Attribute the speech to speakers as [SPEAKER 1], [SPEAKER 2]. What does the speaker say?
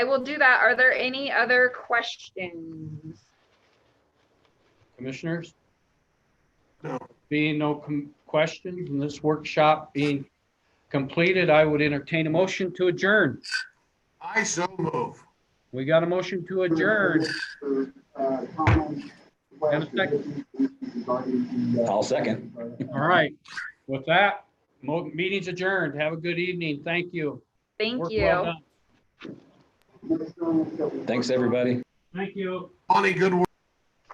[SPEAKER 1] I will do that. Are there any other questions?
[SPEAKER 2] Commissioners?
[SPEAKER 3] No.
[SPEAKER 2] Being no com- questions and this workshop being completed, I would entertain a motion to adjourn.
[SPEAKER 3] I so move.
[SPEAKER 2] We got a motion to adjourn.
[SPEAKER 4] Have
[SPEAKER 2] a second.
[SPEAKER 5] I'll second.
[SPEAKER 2] All right. With that, mo- meeting's adjourned. Have a good evening. Thank you.
[SPEAKER 1] Thank
[SPEAKER 2] Work
[SPEAKER 1] you.
[SPEAKER 2] well done.
[SPEAKER 5] Thanks, everybody.
[SPEAKER 2] Thank you.
[SPEAKER 3] Bonnie, good work.